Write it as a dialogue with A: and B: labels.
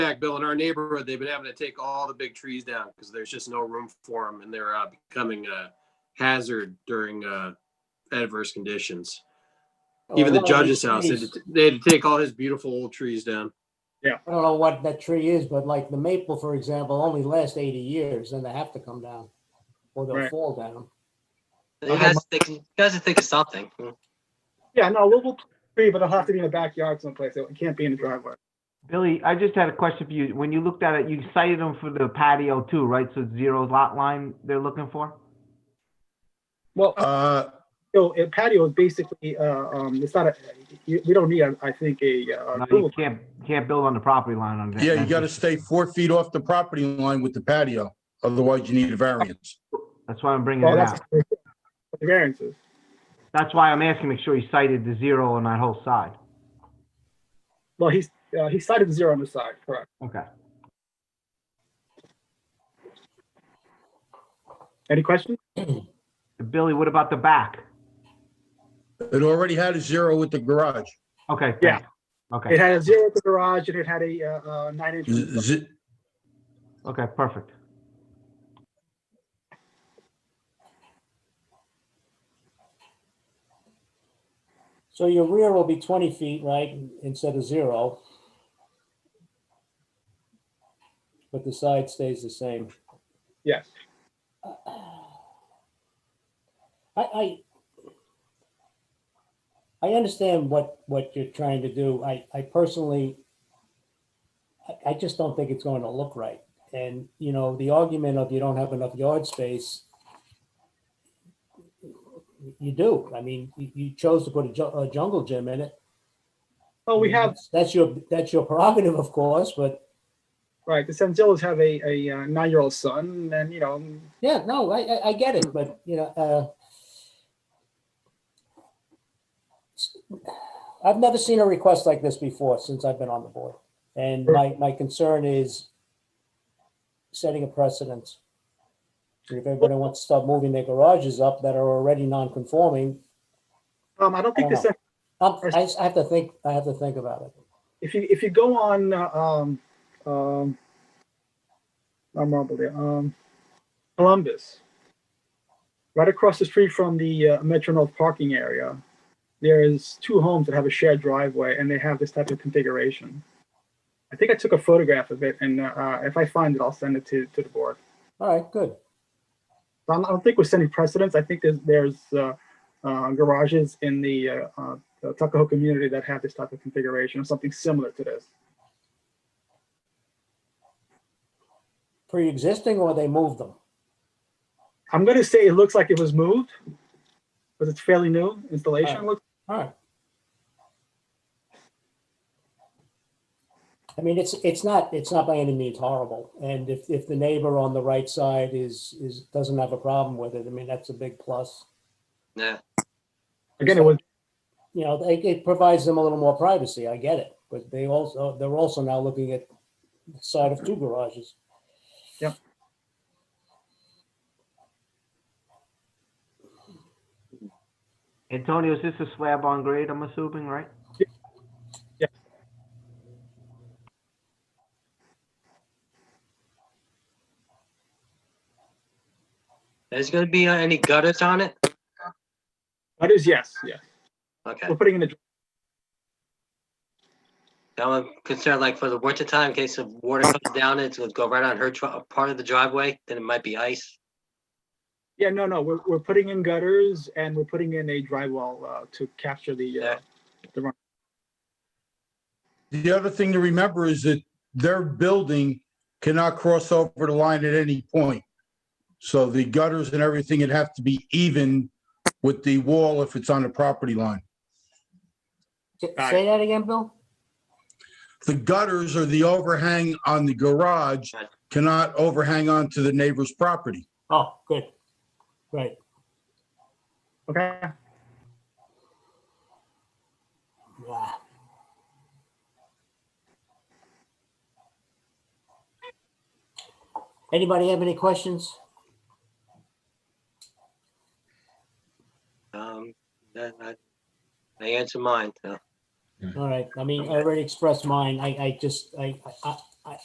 A: fact, Bill, in our neighborhood, they've been having to take all the big trees down because there's just no room for them and they're uh, becoming a hazard during uh, adverse conditions. Even the
B: Oh, Well, one of
A: judge's
B: these
A: house, they had
B: trees-
A: to- they had to take all his beautiful old trees down.
B: I don't know what that tree is, but like the maple, for example, only lasts eighty years, then they have to come down. Or they'll
C: Right.
B: fall down.
D: You guys think, you guys think of something.
C: Yeah, no, we'll, we'll tree, but it'll have to be in the backyard someplace. It can't be in the driveway.
E: Billy, I just had a question for you. When you looked at it, you cited them for the patio too, right? So zero lot line they're looking for?
C: Well,
F: Uh,
C: so a patio is basically, uh, um, it's not a, you, we don't need, I I think, a, uh,
E: No, you
C: approval.
E: can't, can't build on the property line on that.
F: yeah, you gotta stay four feet off the property line with the patio, otherwise you need a variance.
E: That's why I'm bringing
C: Well,
E: it out.
C: that's the variances.
E: That's why I'm asking, make sure you cited the zero on that whole side.
C: Well, he's, uh, he cited the zero on the side, correct.
E: Okay.
C: Any questions?
E: Billy, what about the back?
F: It already had a zero with the garage.
E: Okay.
C: Yeah.
E: thanks. Okay,
C: It had a zero at the garage and it had a, uh, uh, nine inch.
F: Z- z-
E: okay, perfect.
B: So your rear will be twenty feet, right, instead of zero? But the side stays the same.
C: Yes.
B: I, I, I understand what, what you're trying to do. I, I personally, I, I just don't think it's going to look right. And, you know, the argument of you don't have enough yard space, you do. I mean, you, you chose to put a ju- a jungle gym in it.
C: Oh, we have,
B: That's your, that's your prerogative, of course, but
C: right, the Sanzillos have a, a uh, nine-year-old son and, you know,
B: yeah, no, I, I, I get it, but, you know, uh, uh, I've never seen a request like this before since I've been on the board. And my, my concern is setting a precedent. If everybody wants to start moving their garages up that are already non-conforming,
C: um, I don't think this,
B: I'm- I, I have to think, I have to think about it.
C: if you, if you go on, uh, um, um, I'm wrong there, um, Columbus, right across the street from the uh, Metro North parking area, there's two homes that have a shared driveway and they have this type of configuration. I think I took a photograph of it and, uh, if I find it, I'll send it to, to the board.
B: All right, good.
C: I don't- I don't think we're setting precedents. I think there's, there's uh, uh, garages in the uh, uh, the Tuckahoe community that have this type of configuration or something similar to this.
B: Pre-existing or they moved them?
C: I'm going to say it looks like it was moved, but it's fairly new installation.
B: Right.
C: Look,
B: All right. I mean, it's, it's not, it's not by any means horrible. And if, if the neighbor on the right side is, is, doesn't have a problem with it, I mean, that's a big plus.
D: Yeah.
C: Again, it was,
B: You know, it, it provides them a little more privacy. I get it. But they also, they're also now looking at the side of two garages.
E: Antonio, is this a slab on grade, I'm assuming, right?
C: Yeah.
D: There's gonna be uh, any gutters on it?
C: that is yes, yes.
D: Okay.
C: We're putting in the,
D: Now I'm concerned like for the winter time, in case the water comes down, it's gonna go right on her dri- part of the driveway, then it might be ice.
C: yeah, no, no, we're, we're putting in gutters and we're putting in a drywall uh, to capture the, uh,
D: Yeah.
F: The other thing to remember is that their building cannot cross over the line at any point. So the gutters and everything would have to be even with the wall if it's on the property line.
B: Say
C: Got it.
B: say that again, Bill?
F: The gutters or the overhang on the garage cannot overhang onto the neighbor's property.
B: Oh, good. Right.
C: okay?
B: Yeah. Anybody have any questions?
D: Um, then I, I answer mine, so.
B: All right, I mean, I already expressed mine, I, I just, I, I-